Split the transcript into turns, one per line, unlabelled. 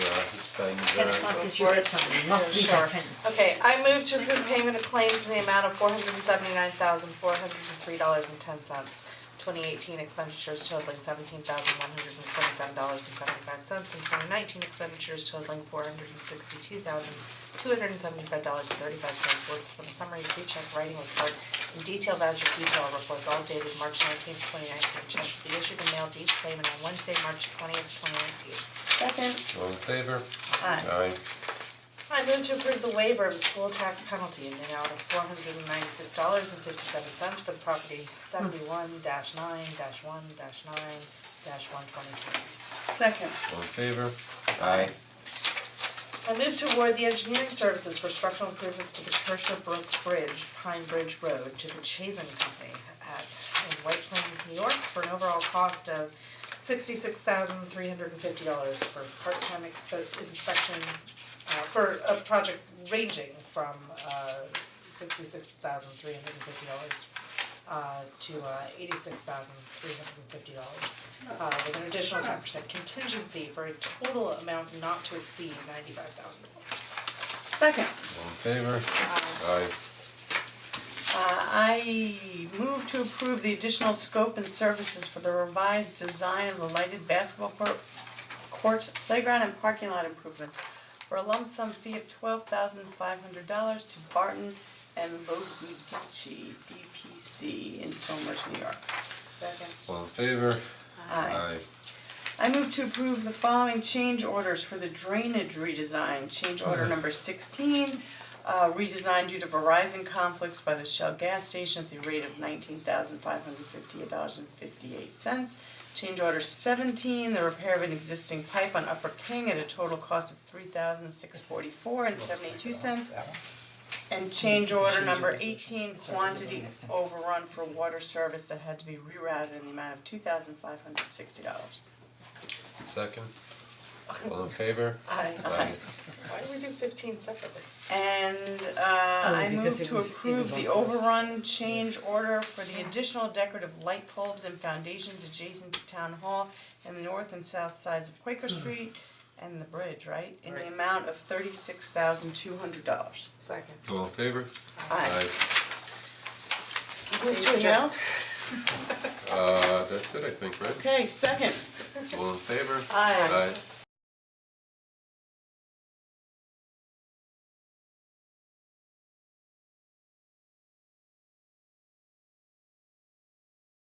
Uh, things
Ten
are.
o'clock is
Go
your
for it.
bedtime, you must leave by
Sure.
ten.
Okay, I move to approve payment of claims in the amount of four hundred and seventy-nine thousand, four hundred and three dollars and ten cents. Twenty eighteen expenditures totaling seventeen thousand, one hundred and twenty-seven dollars and seventy-five cents, and twenty nineteen expenditures totaling four hundred and sixty-two thousand, two hundred and seventy-five dollars and thirty-five cents, listed from the summary pre-check writing report and detailed voucher detail reports, all dated March nineteenth, twenty nineteen, checks to be issued and mailed to each claimant on Wednesday, March twentieth, twenty nineteen.
Second,
All in favor?
Aye.
Aye.
I move to approve the waiver of the school tax penalty in the amount of four hundred and ninety-six dollars and fifty-seven cents for the property seventy-one nine one nine one twenty-seven.
second,
All in favor? Aye.
I move to award the engineering services for structural improvements to the Tertia Brook Bridge, Pine Bridge Road, to the Chazen Company at in White Plains, New York, for an overall cost of sixty-six thousand three hundred and fifty dollars for part-time expo- inspection, uh, for a project ranging from uh sixty-six thousand three hundred and fifty dollars uh to uh eighty-six thousand three hundred and fifty dollars. Uh with an additional ten percent contingency for a total amount not to exceed ninety-five thousand dollars.
second,
All in favor? Aye.
uh, I move to approve the additional scope and services for the revised design of the lighted basketball court, court playground and parking lot improvements for a lump sum fee of twelve thousand five hundred dollars to Barton and Logudici, DPC in Somers, New York.
Second.
All in favor?
Aye. I move to approve the following change orders for the drainage redesign. Change order number sixteen, uh, redesigned due to Verizon conflicts by the Shell gas station at the rate of nineteen thousand five hundred fifty-eight dollars and fifty-eight cents. Change order seventeen, the repair of an existing pipe on Upper King at a total cost of three thousand six forty-four and seventy-two cents. And change order number eighteen, quantity overrun for water service that had to be rerouted in the amount of two thousand five hundred sixty dollars.
Second? All in favor?
Aye.
Aye.
Why do we do fifteen separately?
And uh I
Oh, because
move
it
to
was- it
approve
was on
the
first.
overrun change order for the additional decorative light bulbs and foundations adjacent to town hall in the north and south sides of Quaker Street and the bridge, right? In the amount of thirty-six thousand two hundred dollars.
Second.
All in favor?
Aye.
Move to
Anything
adjourn.
else?
Uh, that's it, I think, right?
Okay, second.
All in favor?
Aye.
Aye.